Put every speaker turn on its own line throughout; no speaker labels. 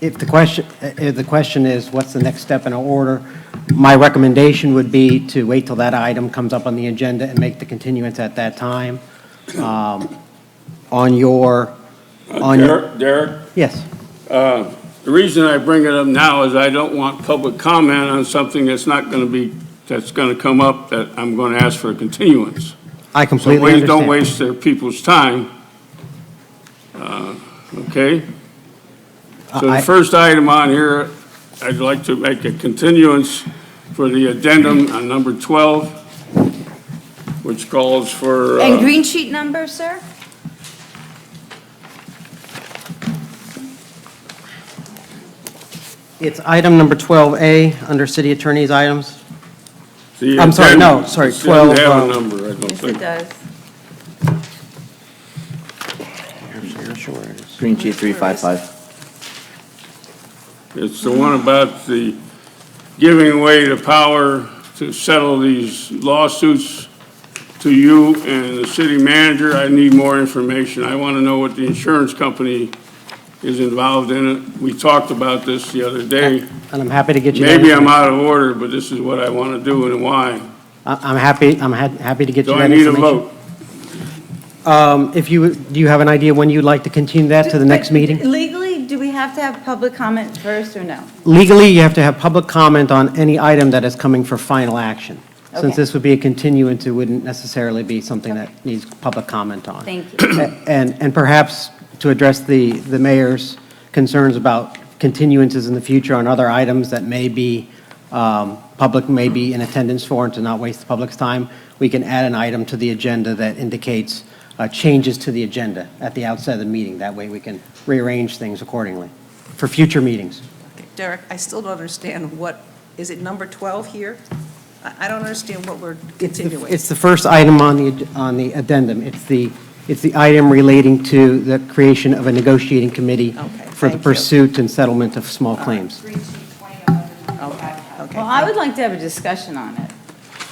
if the question, if the question is, what's the next step in our order, my recommendation would be to wait till that item comes up on the agenda and make the continuance at that time. Um, On your, on your,
Derek, Derek,
yes.
the reason I bring it up now is I don't want public comment on something that's not going to be, that's going to come up that I'm going to ask for a continuance.
I
So
completely
please
understand.
don't waste their people's time. Uh, Okay? So
I-
the first item on here, I'd like to make a continuance for the addendum on number 12, which calls for,
And
uh,
green sheet number, sir?
It's item number 12A, under city attorney's items.
the
I'm sorry, no,
addendum.
sorry,
It doesn't
12,
have a
um,
number, I don't
Yes, it
think.
does.
Green sheet 355.
It's the one about the giving away the power to settle these lawsuits to you and the city manager. I need more information. I want to know what the insurance company is involved in it. We talked about this the other day.
And I'm happy to get you that.
Maybe I'm out of order, but this is what I want to do and why.
I- I'm happy, I'm ha- happy to get you
So I
that
need a
information.
vote.
Um, If you, do you have an idea when you'd like to continue that to the next meeting?
Legally, do we have to have public comment first or no?
Legally, you have to have public comment on any item that is coming for final action. Since
Okay.
this would be a continuance, it wouldn't necessarily be something that needs public comment on.
Thank you.
A- And, and perhaps to address the, the mayor's concerns about continuances in the future on other items that may be, um, public may be in attendance for and to not waste the public's time, we can add an item to the agenda that indicates uh, changes to the agenda at the outset of the meeting. That way we can rearrange things accordingly for future meetings.
Derek, I still don't understand what, is it number 12 here? I I don't understand what we're continuing.
It's the first item on the, on the addendum. It's the, it's the item relating to the creation of a negotiating committee
Okay,
for the
thank you.
pursuit and settlement of small claims.
Okay, okay.
Well, I would like to have a discussion on it.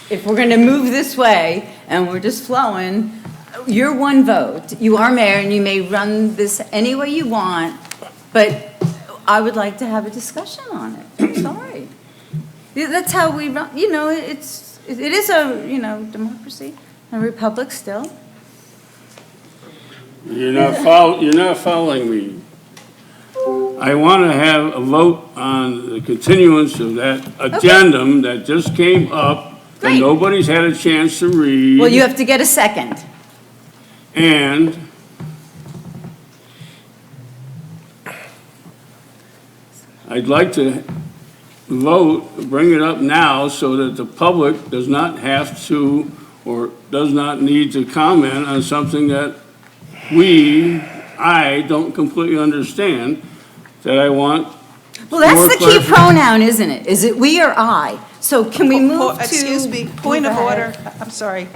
If we're going to move this way and we're just flowing, you're one vote. You are mayor and you may run this any way you want, but I would like to have a discussion on it. I'm sorry. Yeah, That's how we run, you know, it's, it is a, you know, democracy, a republic still.
You're not follow, you're not following me. I want to have a vote on the continuance of that addendum that just came up that
Great.
nobody's had a chance to
Well, you
read.
have to get a second.
And I'd like to vote, bring it up now so that the public does not have to or does not need to comment on something that we, I don't completely understand, that I want,
Well, that's
More
the key
clarification.
pronoun, isn't it? Is it we or I? So can we
Po- po-
move to?
Excuse me, point of
Go ahead.
order, I- I'm sorry.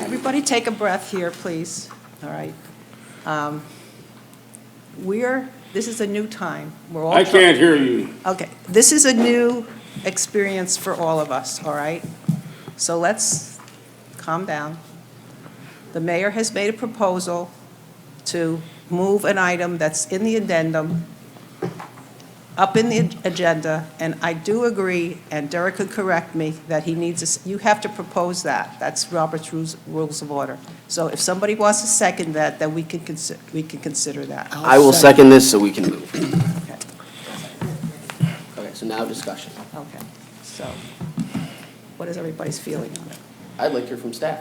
Everybody take a breath here, please, all right? Um, We're, this is a new time, we're all.
I
try-
can't hear you.
Okay, this is a new experience for all of us, all right? So let's calm down. The mayor has made a proposal to move an item that's in the addendum up in the agenda, and I do agree, and Derek could correct me, that he needs, a s- you have to propose that. That's Robert's Rules Rules of Order. So if somebody wants to second that, then we can consider, we can consider that.
I will second this so we can move. Okay, so now discussion.
Okay, so what is everybody's feeling on it?
I'd like to hear from staff.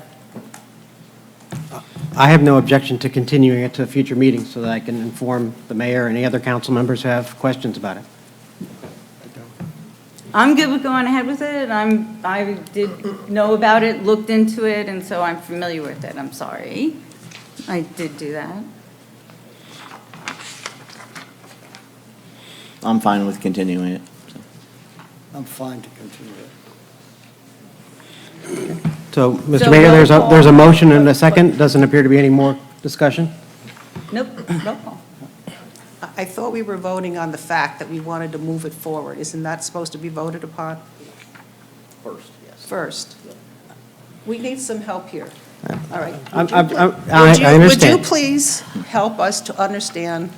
I have no objection to continuing it to a future meeting so that I can inform the mayor and any other council members who have questions about it.
I'm good with going ahead with it. I'm, I did know about it, looked into it, and so I'm familiar with it. I'm sorry. I did do that.
I'm fine with continuing it.
I'm fine to continue it.
So, Mr.
So
Mayor,
roll
there's a,
call.
there's a motion and a second. Doesn't appear to be any more discussion.
Nope, roll call.
I I thought we were voting on the fact that we wanted to move it forward. Isn't that supposed to be voted upon
First, yes.
first? We need some help here. All right.
I'm-
Would you
I'm-
pl-
I'm- I-
would you-
I
Would
understand.
you please help us to understand